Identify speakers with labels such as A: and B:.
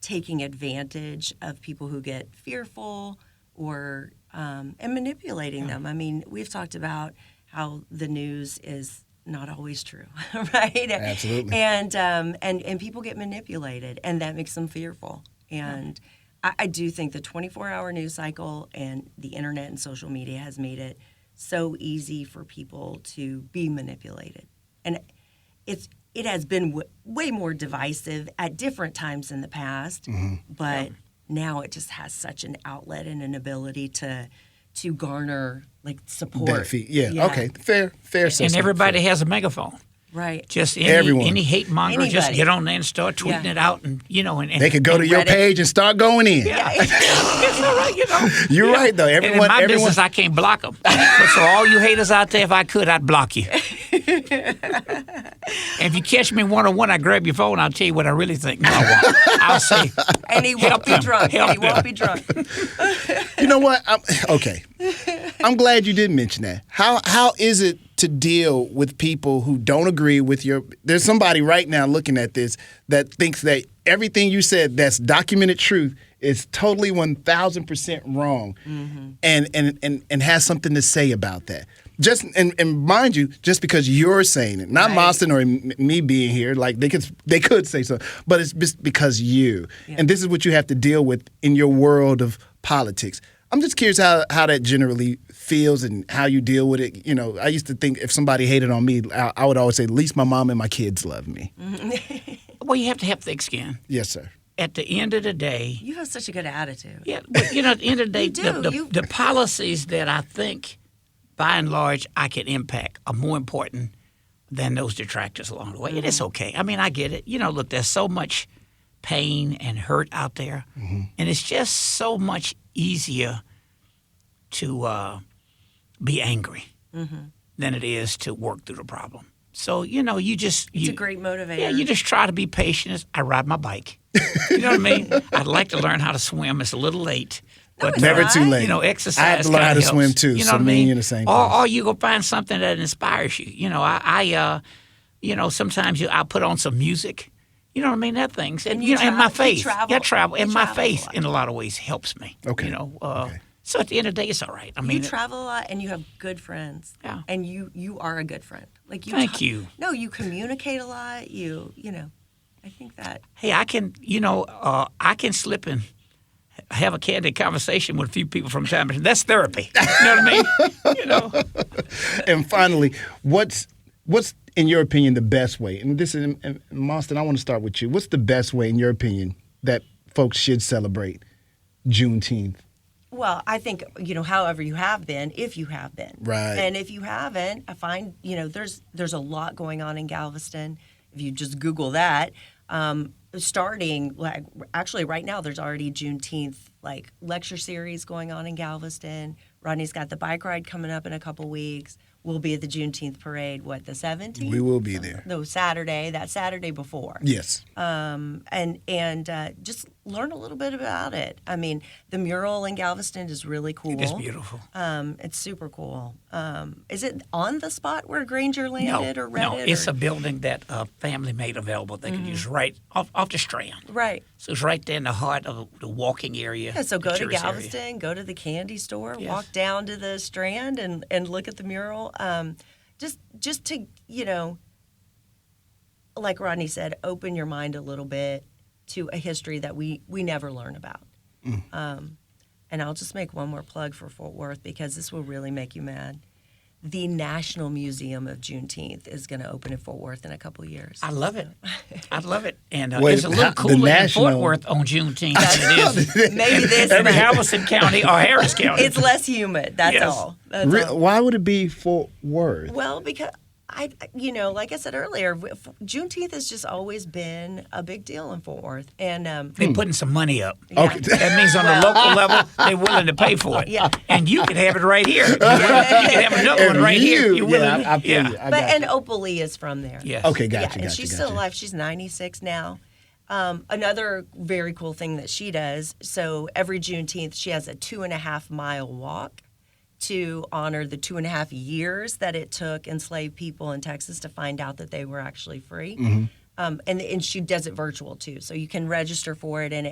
A: taking advantage of people who get fearful or um, and manipulating them. I mean, we've talked about how the news is not always true, right?
B: Absolutely.
A: And um, and and people get manipulated, and that makes them fearful. And I, I do think the 24-hour news cycle and the internet and social media has made it so easy for people to be manipulated, and it's it has been w- way more divisive at different times in the past,
B: Mm-hmm.
A: but now it just has such an outlet and an ability to to garner like support.
B: That fee- yeah. Okay. Fair. Fair.
C: and
B: assessment.
C: everybody has a megaphone.
A: Right.
C: Just any,
B: Everyone.
C: any hate monger, just
A: Anybody.
C: get on there and start tweeting
A: Yeah.
C: it out, and you know, and, and
B: They could go to your
A: Reddit.
B: page and start going in.
C: Yeah, it's all right, you know.
B: You're
C: Yeah.
B: right though.
C: And in
B: Everyone.
C: my
B: everyone.
C: business, I can't block them. so all you haters out there, if I could, I'd block you. and if you catch me one on one, I grab your phone. I'll tell you what I really think. No, I won't. I'll say,
A: And he won't
C: Help
A: be
C: them.
A: drunk.
C: Help
A: And he
C: them.
A: won't be drunk.
B: you know what? I'm, okay. I'm glad you did mention that. How how is it to deal with people who don't agree with your? There's somebody right now looking at this that thinks that everything you said that's documented truth is totally 1,000 percent wrong,
C: Mm-hmm.
B: and, and and and has something to say about that. Just and, and mind you, just because you're saying it, not
A: Right.
B: Mostyn or m- me being here, like they could they could say so, but it's just because you. And this is what you have to deal with in your world of politics. I'm just curious how, how that generally feels and how you deal with it. You know, I used to think if somebody hated on me, I, I would always say, at least my mom and my kids love me.
C: well, you have to have thick skin.
B: Yes, sir.
C: At the end of the day,
A: You have such a good attitude.
C: Yeah, but you know, at the end of the day,
A: You
C: the,
A: do,
C: the,
A: you-
C: the policies that I think, by and large, I can impact are more important than those detractors along the way. And
A: Mm-hmm.
C: it's okay. I mean, I get it. You know, look, there's so much pain and hurt out there,
A: Mm-hmm.
C: and it's just so much easier to uh, be angry
A: Mm-hmm.
C: than it is to work through the problem. So you know, you just
A: It's
C: you,
A: a great motivator.
C: yeah, you just try to be patient. as I ride my bike. You know what I mean? I'd like to learn how to swim. It's a little late. But
A: it's
B: Never
A: not.
B: too late.
C: You know, exercise.
B: I had to learn
C: kinda
B: how to
C: helps.
B: swim too.
C: You know
B: so
C: what I
B: me and
C: mean?
B: you in the same
C: or,
B: place.
C: or you go find something that inspires you. You know, I, I uh, you know, sometimes you I put on some music. You know what I mean? That things and,
A: And you
C: you, know, and my
A: travel- you
C: faith.
A: travel-
C: yeah, I travel
A: you
C: and my
A: travel a
C: faith
A: lot.
C: in a lot of ways helps me.
B: Okay.
C: You know, uh, so at the end of the day, it's all right. I mean,
A: you travel a lot and you have good friends.
C: Yeah.
A: And you you are a good friend. Like you
C: Thank
A: ta-
C: you.
A: No, you communicate a lot. You you know, I think that
C: hey, I can, you know, uh, I can slip and have a candid conversation with a few people from time to time. That's therapy. You know what I mean? You know.
B: and finally, what's what's in your opinion the best way? And this is and- and Monston, I want to start with you. What's the best way in your opinion that folks should celebrate Juneteenth?
A: Well, I think you know, however you have been, if you have been,
B: Right.
A: and if you haven't, I find you know there's there's a lot going on in Galveston. If you just Google that, um, starting like actually right now, there's already Juneteenth like lecture series going on in Galveston. Rodney's got the bike ride coming up in a couple weeks. We'll be at the Juneteenth parade. What the 17th?
B: We will be there.
A: No, Saturday. That Saturday before
B: Yes.
A: and and uh, just learn a little bit about it. I mean, the mural in Galveston is really cool.
C: It's beautiful.
A: Um, it's super cool. Um, is it on the spot where Granger landed or Reddit?
C: no, it's
A: or, Mm.
C: a building that a family made available. They could use right off, off the Strand.
A: right.
C: So it's right there in the heart of the walking area.
A: Yeah, so
C: the
A: go to
C: tourist area.
A: Galveston, go to the candy store,
C: Yes.
A: walk down to the Strand, and and look at the mural. Um, just just to you know, like Rodney said, open your mind a little bit to a history that we we never learn about. Um, and I'll just make one more plug for Fort Worth because this will really make you mad. The National Museum of Juneteenth is going to open in Fort Worth in a couple years.
C: I love it. I love it. And uh,
B: Wait,
C: it's a little
B: how- the
C: cooler in
B: national-
C: Fort Worth on Juneteenth than it is
A: Maybe this
C: in Galveston County or Harris County.
A: it's less humid. That's
C: Yes.
A: all. That's
B: Re-
A: all.
B: why would it be Fort Worth?
A: Well, because I, you know, like I said earlier, w- f- Juneteenth has just always been a big deal in Fort Worth, and um,
C: They're putting some money up.
B: Hmm. Okay.
C: That means on the local level, they're willing to pay for it.
A: Yeah.
C: And you can have it right here. You can have another one
B: And
C: right here.
B: you-
C: if You're willing
B: yeah,
C: to-
B: I, I feel
C: yeah.
B: you. I
A: but
B: got
A: and
B: you.
A: Opal Lee is from there.
C: Yes.
B: Okay, gotcha,
A: yeah, and
B: gotcha,
A: she's
B: gotcha.
A: still alive. She's 96 now. Um, another very cool thing that she does so every Juneteenth, she has a two and a half mile walk to honor the two and a half years that it took enslaved people in Texas to find out
B: Mm-hmm.
A: that they were actually free. Um, and, and she does it virtual too. So you can register for it, and